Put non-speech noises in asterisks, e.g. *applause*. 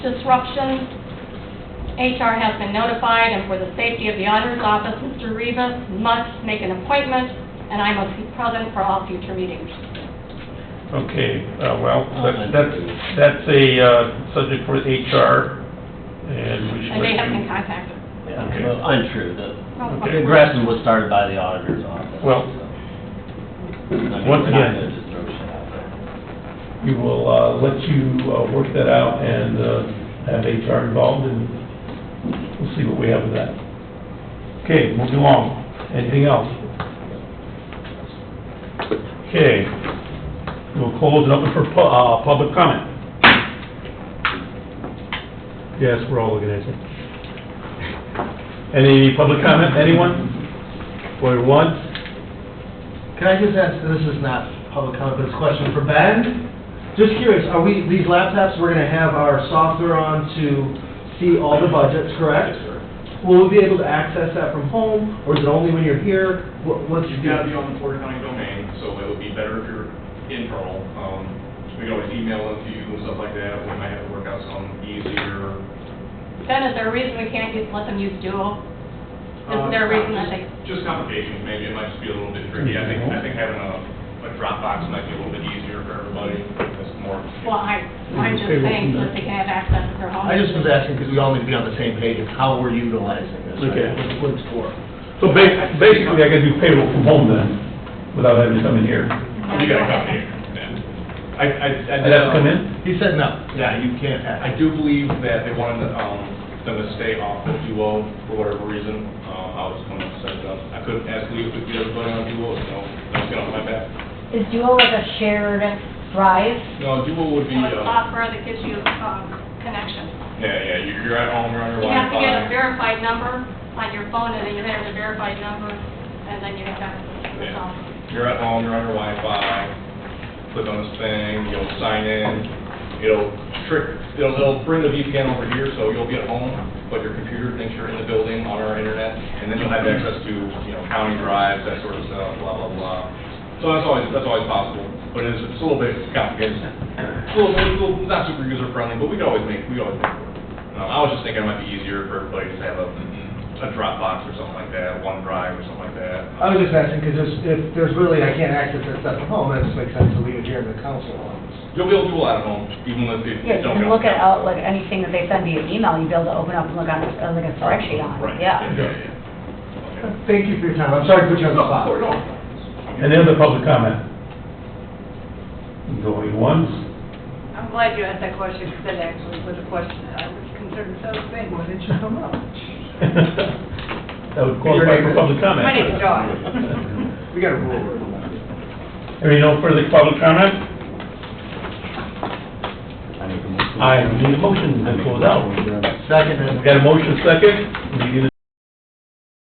disruption. HR has been notified, and for the safety of the auditor's office, Mr. Rivas must make an appointment, and I must be present for all future meetings. Okay, uh, well, that- that's, that's a uh, subject for HR, and we should... And they have been contacted. Yeah, Okay. well, untrue. The Okay. the Gressman was started by the auditor's office. Well, so, I mean, once we're not again- gonna just throw shit out there. We will uh, let you uh, work that out and uh, have HR involved, and we'll see what we have with that. Okay, moving along. Anything else? Okay, we'll close it up for pu- uh, public comment. Yes, we're all looking at you. Any public comment, anyone? Going once? Can I just ask, this is not public comment, but it's a question for Ben. Just curious, are we, these laptops, we're gonna have our software on to see all the budgets, correct? Will we be able to access that from home, or is it only when you're here? What, what's? You've got to be on the Porter County domain, so it would be better if you're internal. Um, We can always email it to you and stuff like that, we might have to work out some easier. Ben, is there a reason we can't use- let them use Duo? Isn't um, there a reason that they, Just complications, maybe it might just be a little bit tricky. I think, I think having a, a Dropbox might be a little bit easier for everybody, that's more. well, I, I'm just saying that they can have access to their home. I just was asking, because we all need to be on the same page, of how we're utilizing this, Okay. right? What- What it's for. So ba- basically, I gotta do payroll from home then, without having to come in here. You got a copy, yeah. I, I. I'd have to come in? He said no. Yeah, you can't, I I do believe that they wanted, um, them to stay off of Duo for whatever reason, uh, I was gonna set it up, I couldn't ask Lee if we could ever go on Duo, so, that's gonna my back. Is Duo like a shared drive? No, Duo would be, So it's uh, software that gives you, um, connection. yeah, yeah, you're, you're at home, you're on your You have to get a Wi-Fi. verified number on your phone, and then you have the verified number, and then you have access to the Yeah. phone. You're at home, you're on your Wi-Fi, click on this thing, you'll sign in, it'll trick, it'll, it'll bring the VPN over here, so you'll be at home, but your computer thinks you're in the building on our internet, and then you'll have access to, you know, county drives, that sort of stuff, blah, blah, blah. So that's always, that's always possible, but it's, it's a little bit complicated. It's a little, it's a little, not super user-friendly, but we can always make, we can always make it work. Um, I was just thinking it might be easier for everybody to have a, a Dropbox or something like that, OneDrive or something like that. I was just asking, because if there's really, I can't access that stuff from home, that just makes sense to leave it here in the council office. You'll be able to do a lot at home, even if you Yeah, you don't. can go. look at Outlook, anything that they send you an email, you'd be able to open up and look on, uh, like a spreadsheet on, Right. it. yeah. yeah. Thank you for your time, I'm sorry to put you on the spot. *laughs* No, no. Any other public comment? Going once, *laughs* I'm glad you asked that question, because that actually was a question that I was concerned so big. Why didn't you come up? that would qualify for public comment. My name's Dawn. We got a rule over *laughs* that. Any no further public comment? I need a motion to close out. Second, We got a motion second, we need a